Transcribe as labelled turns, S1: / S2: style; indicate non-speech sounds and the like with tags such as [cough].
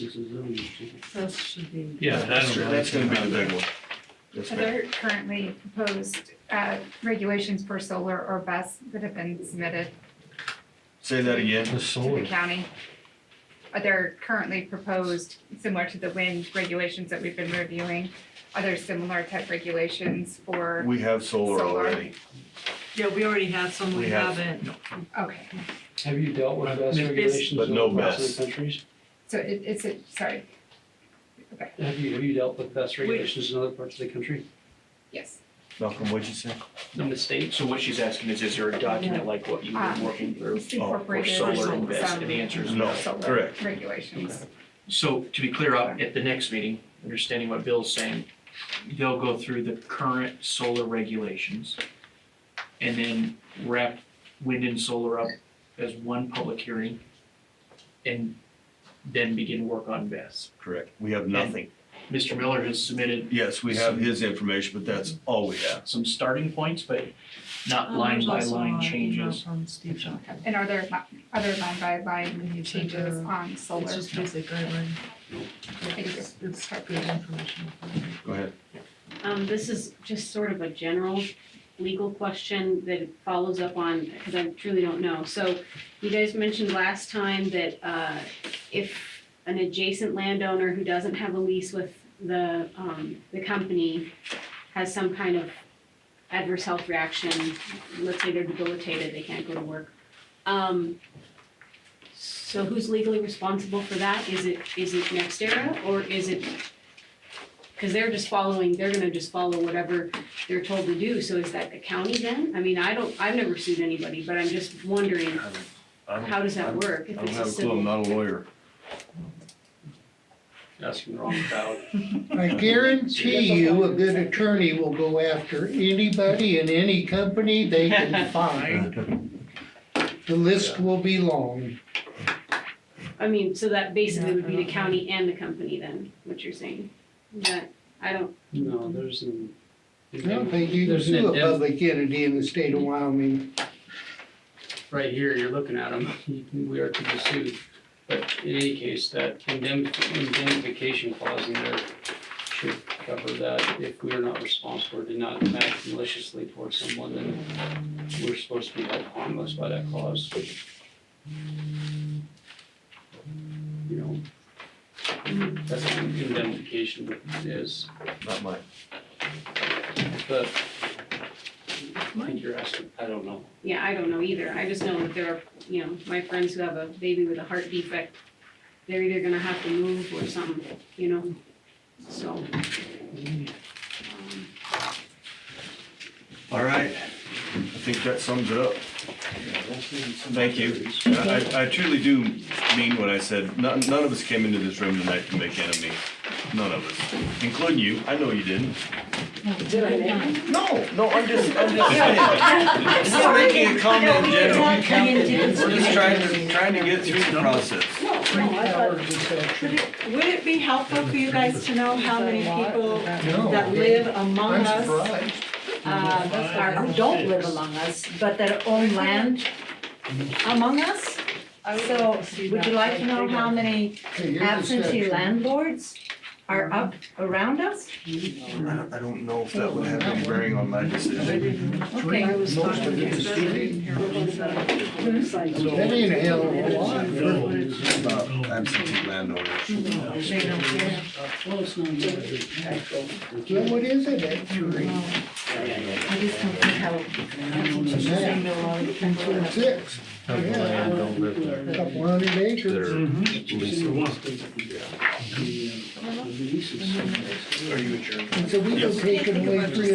S1: This is zoning change.
S2: Those should be.
S3: Yeah, I
S4: That's
S3: don't
S4: true.
S3: know.
S4: That's gonna be the big one. That's
S5: Are
S4: big.
S5: there currently proposed uh, regulations for solar or BES that have been submitted
S4: Say that again.
S3: The
S5: to the
S3: solar,
S5: county? Are there currently proposed, similar to the wind regulations that we've been reviewing, are there similar type regulations for,
S4: We have solar
S5: Solar.
S4: already.
S2: Yeah, we already have some,
S4: We
S2: we
S4: have-
S2: haven't.
S5: okay,
S6: Have you dealt with best
S2: Maybe it's-
S6: regulations
S4: But
S6: in
S4: no
S6: other parts
S4: best.
S6: of the countries?
S5: so it, it's, a- sorry,
S6: Have you, have you dealt with best regulations in other parts of the country,
S5: yes.
S4: Malcolm, what'd you say?
S6: in the states?
S7: So what she's asking is, is there a document like what you've
S8: Ah.
S7: been working through?
S4: Oh,
S5: It's
S4: for
S7: for
S5: incorporated
S7: solar
S5: some
S7: and BES, and the answer is
S4: No,
S5: solar
S4: correct.
S5: regulations.
S7: So to be clear, out at the next meeting, understanding what Bill's saying, they'll go through the current solar regulations and then wrap wind and solar up as one public hearing and then begin work on BES.
S4: Correct. We have nothing.
S7: Mr. Miller has submitted
S4: Yes, we have his information, but that's all we have.
S7: some starting points, but not
S8: Oh,
S2: Um,
S7: line
S2: there's
S7: by
S2: also
S7: line
S2: an email
S7: changes.
S2: From Steve Johnson.
S5: And are there, li- are there line by line
S2: We need to
S5: changes
S2: do-
S5: on solar?
S2: It's just basic guideline.
S5: Thank you.
S2: It's, it's good information.
S4: Go ahead.
S9: Um, this is just sort of a general legal question that follows up on, because I truly don't know. So you guys mentioned last time that, uh, if an adjacent landowner who doesn't have a lease with the, um, the company has some kind of adverse health reaction, let's say they're debilitated, they can't go to work. Um, so who's legally responsible for that? Is it, is it Nextera or is it Cause they're just following, they're gonna just follow whatever they're told to do, so is that the county then? I mean, I don't, I've never sued anybody, but I'm just wondering, how does that work?
S4: I
S9: If
S4: don't
S9: it's a
S4: have a clue. I'm
S9: civil,
S4: not a lawyer.
S3: Asking the wrong crowd.
S1: I guarantee you, a good attorney will go after anybody and any company they
S8: [laughs]
S1: can find. The list will be long.
S9: I mean, so that basically
S2: Yeah,
S9: would
S2: I
S9: be the
S2: don't know.
S9: county and the company then, what you're saying? That, I don't,
S6: No, there's an.
S1: I don't think you can
S6: There's an
S1: sue a
S6: indem-
S1: public entity in the state of Wyoming.
S6: Right here, you're looking at [laughs] them, we are to be sued, but in any case, that indemn- indemnification clause in there should cover that, if we are not responsible or did not act maliciously towards someone, then we're supposed to be held harmless by that clause. You know, that's what indemnification is,
S4: Not mine.
S6: but mind you're asking, I don't know.
S9: yeah, I don't know either, I just know that there are, you know, my friends who have a baby with a heart defect, they're either gonna have to move or something, you know, so. um,
S4: All right. I think that sums it up. Thank you. I, I- I truly do mean what I said. None, none of us came into this room tonight to make enemies. None of us, including you. I know you didn't. No, no, I'm just, I'm just saying. I'm just making a comment in general. We're just trying to, trying to get through the process.
S8: No, no, I thought, would it, would it be helpful for you guys to know how many people that live among
S1: I'm
S8: us,
S1: surprised.
S8: uh, or who don't live among us, but that own land among us? So, would you like to know how many
S1: Hey, you're
S8: absentee
S1: deception.
S8: landlords are up around us?
S4: I don't- I don't know if that would have any bearing on my decision.
S8: Okay.
S2: was
S1: Most
S2: talking
S1: of it
S2: to
S1: is
S2: Steve.
S1: city.
S2: Mhm.
S1: That ain't a hell of a lot.
S4: About absentee landowners.
S8: They don't care.
S1: Well, what is it, that jury?
S8: I just don't think how, I don't know, saying they're all-
S1: Six, a couple hundred acres.
S7: Mm-hmm.
S4: Are you adjourned?
S1: And so we go
S4: Yes.
S1: take away three